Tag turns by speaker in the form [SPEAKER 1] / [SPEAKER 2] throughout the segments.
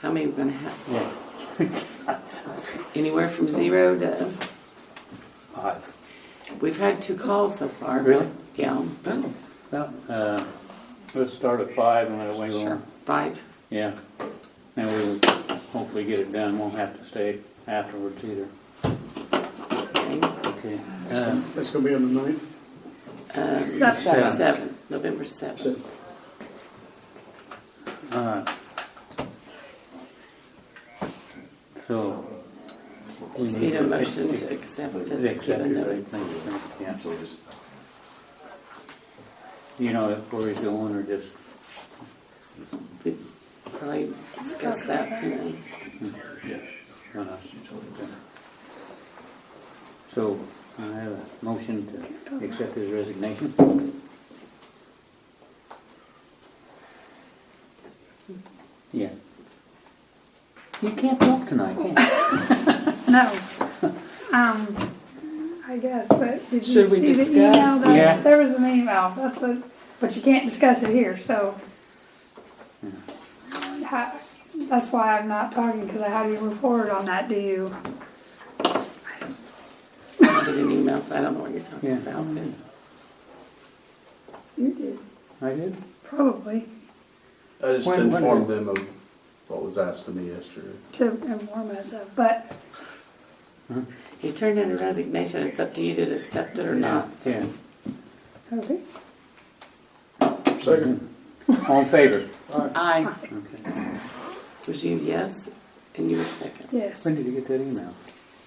[SPEAKER 1] How many we're gonna have? Anywhere from zero to,
[SPEAKER 2] Five.
[SPEAKER 1] we've had two calls so far.
[SPEAKER 2] Really?
[SPEAKER 1] Yeah,
[SPEAKER 2] Well, uh, let's start at five and that way we'll,
[SPEAKER 1] five.
[SPEAKER 2] yeah. And we'll hopefully get it done, won't have to stay afterwards either.
[SPEAKER 1] okay. Um,
[SPEAKER 2] Okay. Uh,
[SPEAKER 3] That's gonna be on the ninth,
[SPEAKER 1] Uh,
[SPEAKER 2] Seven.
[SPEAKER 1] Seven, November seventh.
[SPEAKER 3] so
[SPEAKER 2] uh, So. we
[SPEAKER 1] Just need a
[SPEAKER 2] to-
[SPEAKER 1] motion to accept the.
[SPEAKER 2] Accept
[SPEAKER 1] the
[SPEAKER 2] it,
[SPEAKER 1] note.
[SPEAKER 2] right, thank you, yeah. You know where he's going or just,
[SPEAKER 1] We Probably discuss that, you know.
[SPEAKER 2] run us? So I have a motion to accept his resignation. Yeah. You can't talk tonight, can you?
[SPEAKER 4] No. Um, I guess, but did you
[SPEAKER 1] Should we
[SPEAKER 4] see the
[SPEAKER 1] discuss?
[SPEAKER 4] email? That's-
[SPEAKER 2] Yeah.
[SPEAKER 4] There was an email, that's a, but you can't discuss it here, so.
[SPEAKER 1] Hmm.
[SPEAKER 4] How- That's why I'm not talking, because how do you move forward on that, do you?
[SPEAKER 1] I did an email, so I don't know what you're talking
[SPEAKER 2] Yeah.
[SPEAKER 1] about.
[SPEAKER 4] You did,
[SPEAKER 2] I did?
[SPEAKER 4] probably,
[SPEAKER 5] I just
[SPEAKER 2] When- when-
[SPEAKER 5] informed them of what was asked of me yesterday.
[SPEAKER 4] to inform us of, but
[SPEAKER 1] He turned in a resignation. It's up to you to accept it or not. so-
[SPEAKER 2] Yeah.
[SPEAKER 4] okay,
[SPEAKER 3] second,
[SPEAKER 2] All in favor?
[SPEAKER 1] Aye.
[SPEAKER 2] Okay.
[SPEAKER 1] Was you yes? And you were second.
[SPEAKER 4] yes.
[SPEAKER 2] When did you get that email?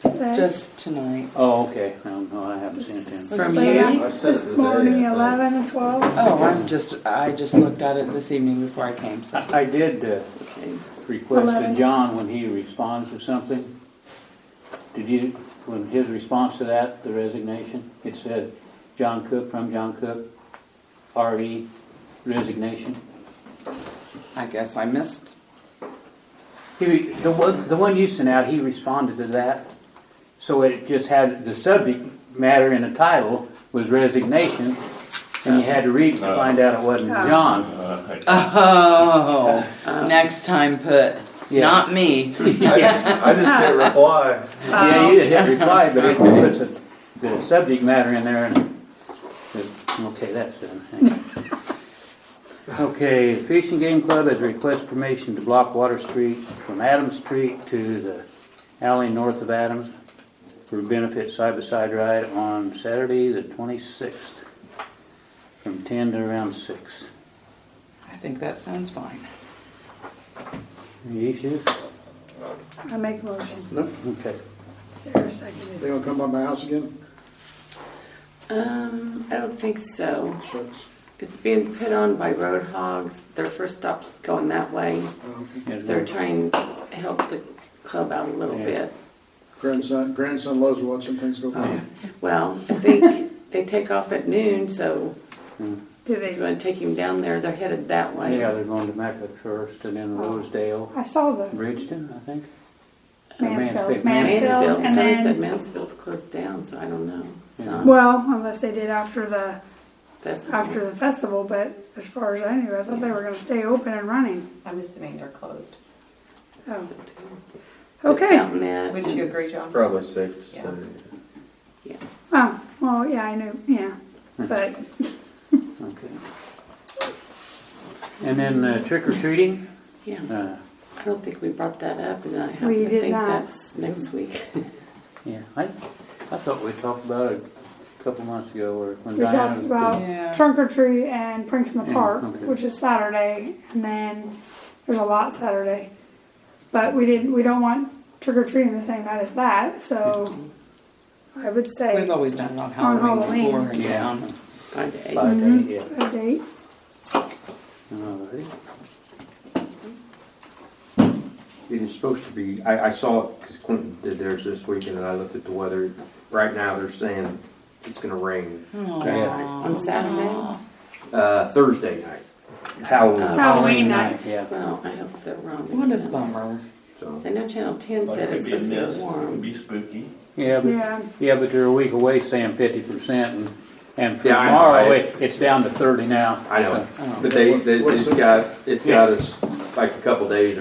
[SPEAKER 4] That-
[SPEAKER 6] Just tonight.
[SPEAKER 2] Oh, okay, no, no, I haven't seen it then.
[SPEAKER 1] From
[SPEAKER 4] but
[SPEAKER 1] you?
[SPEAKER 4] I-
[SPEAKER 5] I said it
[SPEAKER 4] This
[SPEAKER 5] today, I
[SPEAKER 4] morning,
[SPEAKER 5] think.
[SPEAKER 4] eleven and twelve,
[SPEAKER 6] Oh, I'm just, I just looked at it this evening before I came, so.
[SPEAKER 2] I I did uh,
[SPEAKER 1] Okay.
[SPEAKER 2] request to
[SPEAKER 4] Eleven.
[SPEAKER 2] John when he responds to something. Did you, when his response to that, the resignation, it said, John Cook, from John Cook, RE resignation?
[SPEAKER 6] I guess I missed.
[SPEAKER 2] He, re- the one, the one you sent out, he responded to that. So it just had, the subject matter in the title was resignation, and you had to read it to find out it wasn't John.
[SPEAKER 6] Oh, next time put,
[SPEAKER 2] Yeah.
[SPEAKER 6] not me.
[SPEAKER 5] I just, I just hit reply.
[SPEAKER 2] Yeah, you didn't hit reply, but it puts a- the subject matter in there and, okay, that's done. Okay, Fishing Game Club has requested permission to block Water Street from Adams Street to the alley north of Adams for benefit side-by-side ride on Saturday, the twenty-sixth, from ten to around six.
[SPEAKER 6] I think that sounds fine.
[SPEAKER 2] Any issues?
[SPEAKER 4] I make a motion,
[SPEAKER 3] no,
[SPEAKER 2] Okay.
[SPEAKER 4] Sarah seconded.
[SPEAKER 3] they gonna come by my house again,
[SPEAKER 1] Um, I don't think so.
[SPEAKER 3] shucks,
[SPEAKER 1] It's being put on by road hogs. Their first stop's going that way.
[SPEAKER 3] um,
[SPEAKER 1] They're
[SPEAKER 2] Mm-hmm.
[SPEAKER 1] trying to help the club out a little bit.
[SPEAKER 3] grandson, grandson loves watching things go
[SPEAKER 7] Oh,
[SPEAKER 3] by.
[SPEAKER 1] Well, I think they take off at noon, so
[SPEAKER 4] Do
[SPEAKER 1] if you
[SPEAKER 4] they,
[SPEAKER 1] want to take him down there, they're headed that way.
[SPEAKER 2] Yeah, they're going to Mecca first and then Rosedale,
[SPEAKER 4] I saw the
[SPEAKER 2] Bridgeton, I think. Uh,
[SPEAKER 4] Mansfield,
[SPEAKER 2] Mansfield.
[SPEAKER 4] Mansfield,
[SPEAKER 1] Mansfield,
[SPEAKER 4] and
[SPEAKER 1] somebody
[SPEAKER 4] then.
[SPEAKER 1] said Mansfield's closed down, so I don't know. It's
[SPEAKER 2] Yeah.
[SPEAKER 1] not
[SPEAKER 4] Well, unless they did after the
[SPEAKER 1] festival.
[SPEAKER 4] after the festival, but as far as I knew, I thought they were gonna stay open and running.
[SPEAKER 8] I'm assuming they're closed.
[SPEAKER 4] Oh,
[SPEAKER 1] It's
[SPEAKER 4] okay.
[SPEAKER 1] out in that,
[SPEAKER 8] Would
[SPEAKER 1] and-
[SPEAKER 8] you agree, John?
[SPEAKER 5] Probably safe to say.
[SPEAKER 8] Yeah.
[SPEAKER 4] Oh, well, yeah, I knew, yeah,
[SPEAKER 2] Hmm.
[SPEAKER 4] but
[SPEAKER 2] Okay. And then uh, trick or treating,
[SPEAKER 1] Yeah,
[SPEAKER 2] uh,
[SPEAKER 1] I don't think we brought that up, and I happen
[SPEAKER 4] We
[SPEAKER 1] to
[SPEAKER 4] did
[SPEAKER 1] think
[SPEAKER 4] not.
[SPEAKER 1] that's next week.
[SPEAKER 2] yeah, I, I thought we talked about it a couple months ago or when
[SPEAKER 4] we
[SPEAKER 2] Diana.
[SPEAKER 4] talked about
[SPEAKER 6] Yeah.
[SPEAKER 4] trunk or treat and pranks in the
[SPEAKER 2] Yeah,
[SPEAKER 4] park,
[SPEAKER 2] okay.
[SPEAKER 4] which is Saturday, and then there's a lot Saturday. But we didn't, we don't want trick or treating the same night as that, so
[SPEAKER 2] Hmm.
[SPEAKER 4] I would say
[SPEAKER 6] We've always done it
[SPEAKER 4] On
[SPEAKER 6] on Halloween before
[SPEAKER 4] Halloween.
[SPEAKER 6] in town.
[SPEAKER 1] Our day.
[SPEAKER 2] Five day, yeah.
[SPEAKER 4] a date. Mm-hmm.
[SPEAKER 2] All right.
[SPEAKER 7] It is supposed to be, I, I saw, because Clinton did theirs this weekend, and I looked at the weather. Right now, they're saying it's gonna rain
[SPEAKER 2] Oh,
[SPEAKER 6] Aw.
[SPEAKER 1] On Saturday?
[SPEAKER 7] uh, Thursday night, Halloween.
[SPEAKER 4] Halloween night.
[SPEAKER 2] Yeah.
[SPEAKER 1] Well, I hope they're wrong.
[SPEAKER 6] What a
[SPEAKER 1] again.
[SPEAKER 6] bummer.
[SPEAKER 7] So
[SPEAKER 1] I know Channel Ten
[SPEAKER 9] Well,
[SPEAKER 1] said
[SPEAKER 9] It could
[SPEAKER 1] it's
[SPEAKER 9] be a mist,
[SPEAKER 1] supposed to be
[SPEAKER 9] it could
[SPEAKER 1] warm.
[SPEAKER 9] be spooky.
[SPEAKER 2] Yeah, but,
[SPEAKER 4] Yeah,
[SPEAKER 2] yeah, but they're a week away saying fifty percent and, and for
[SPEAKER 7] Yeah, I know,
[SPEAKER 2] tomorrow,
[SPEAKER 7] I-
[SPEAKER 2] it- it's down to thirty now.
[SPEAKER 7] I know,
[SPEAKER 2] So,
[SPEAKER 7] but they, they,
[SPEAKER 3] What's
[SPEAKER 7] it's
[SPEAKER 3] this?
[SPEAKER 7] got, it's got us like a couple days